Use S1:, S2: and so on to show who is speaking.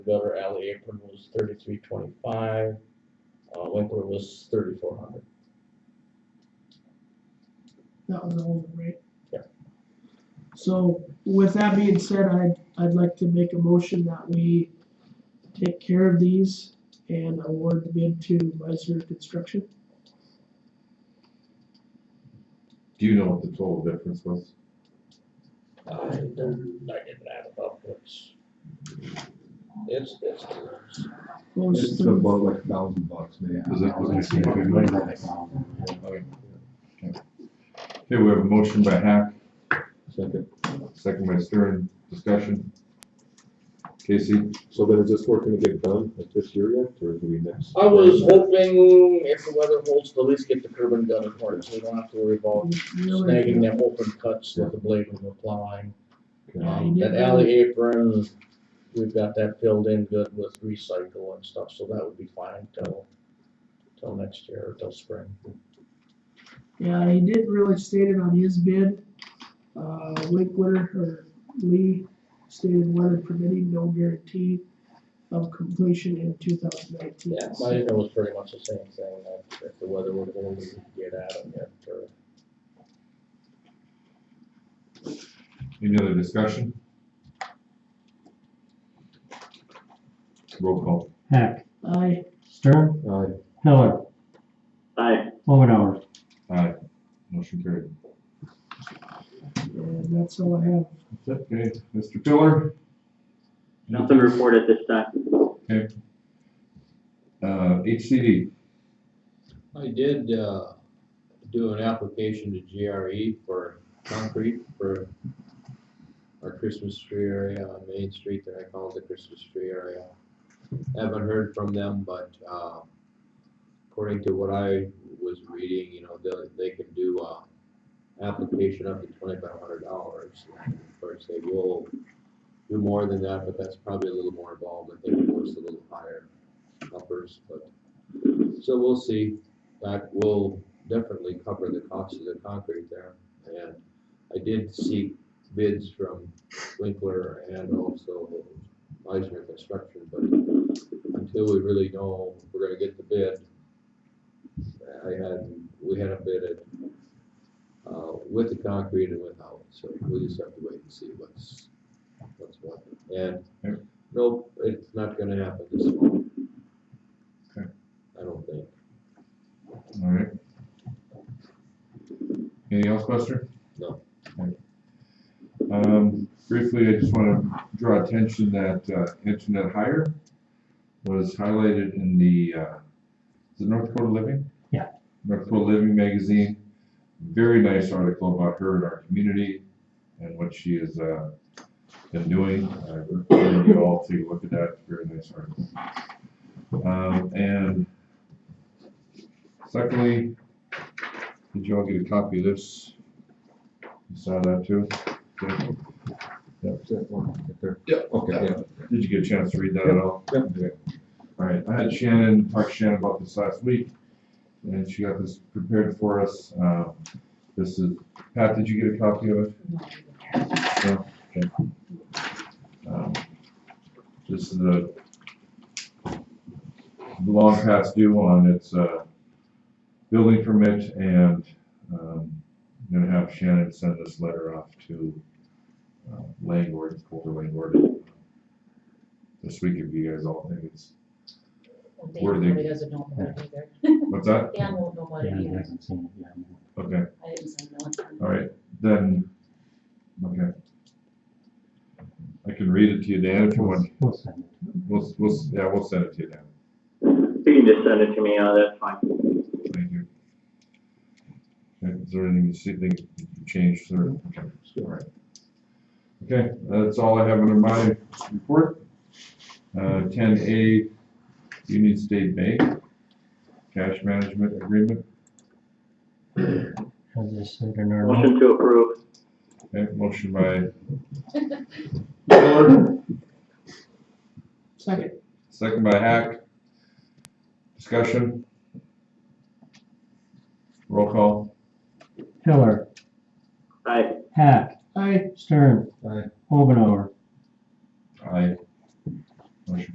S1: Better Alley apron was thirty-three twenty-five, uh, Winkler was thirty-four hundred.
S2: That was all, right?
S1: Yeah.
S2: So with that being said, I'd, I'd like to make a motion that we take care of these and award the bid to Meisner Construction.
S3: Do you know what the total difference was?
S1: I don't, I didn't add it up, it's, it's, it's, close.
S2: Close
S4: It's
S2: to,
S4: about like a thousand bucks, man.
S3: Is it- okay, so probably more than a
S4: Second.
S3: Okay, Okay, we have a motion by Hack, second by Stern, discussion. Casey,
S4: So then is this work gonna get done at this year yet, or do we next?
S1: I was hoping if the weather holds, to at least get the curb and gutter part, so we don't have to worry about
S2: really,
S1: snagging them open cuts with the blade when we're plowing.
S2: Yeah, you
S1: Um,
S2: did
S1: that
S2: that.
S1: alley apron, we've got that filled in good with recycle and stuff, so that would be fine till, till next year, or till spring.
S2: yeah, he didn't really state it on his bid. Uh, Winkler or Lee stated weather permitting, no guarantee of completion in two thousand nineteen.
S1: Yeah, my email was pretty much the same thing, that if the weather would hold, we could get at them yet, or.
S3: any other discussion? Roll call.
S5: Heck,
S2: Aye.
S5: Stern,
S4: Aye.
S5: Hiller,
S6: Aye,
S5: Omenauer.
S3: Aye, motion carried.
S2: And that's all I have.
S3: Okay, Mr. Pillar,
S6: nothing reported this time.
S3: uh, HCD,
S7: I did, uh, do an application to GRE for concrete for our Christmas tree area on Main Street that I call the Christmas tree area. Haven't heard from them, but, uh, according to what I was reading, you know, they, they can do, uh, application up to twenty-five hundred dollars. Of course, they will do more than that, but that's probably a little more involved. I think it was a little higher numbers, but, so we'll see that will definitely cover the cost of the concrete there. And I did seek bids from Winkler and also Meisner Construction, but until we really know if we're gonna get the bid, I had, we had a bid at, uh, with the concrete and without, so we just have to wait and see what's, what's what. And,
S3: Yep.
S7: nope, it's not gonna happen this fall.
S3: Okay.
S7: I don't think.
S3: all right. Anything else, Buster?
S7: No.
S3: Okay. Um, briefly, I just wanna draw attention that, uh, internet hire was highlighted in the, uh, is it North Dakota Living?
S5: Yeah.
S3: North Dakota Living magazine, very nice article about her and our community and what she has, uh, been doing. I recommend you all to look at that, very nice article. Um, and secondly, did you all get a copy of this? You saw that too? Okay.
S4: That's that one, right there.
S3: Yep.
S4: Okay, yeah.
S3: Did you get a chance to read that at all? Yep. All right, I had Shannon, talked to Shannon about this last week, and she got this prepared for us. Uh, This is, Pat, did you get a copy of it? No? Okay. Um, This is a long past due on its uh, building permit, and um, I'm gonna have Shannon send this letter off to uh, Langford, Colter Langford, this week if you guys all think it's,
S8: Dan
S3: Where they-
S8: really doesn't know about it either.
S3: what's that?
S8: Dan won't know about it either.
S3: Okay,
S8: I didn't send no one.
S3: all right, then, okay. I can read it to you, Dan, if you want.
S5: We'll send it.
S3: We'll, we'll, yeah, we'll send it to you, Dan.
S6: You can just send it to me, uh, that's fine.
S3: Thank you. Okay, Is there anything you see, think you changed, sir? Okay, all right. Okay, that's all I have under my report. Uh, ten A, Union State Bank, cash management agreement.
S5: As I said in our
S6: Motion to approve.
S3: Okay, motion by
S2: Second.
S3: Second by Hack. Discussion. Roll call.
S5: Hiller,
S6: Aye,
S5: Hack,
S2: Aye.
S5: Stern,
S3: Aye.
S5: Omenauer.
S3: Aye. Motion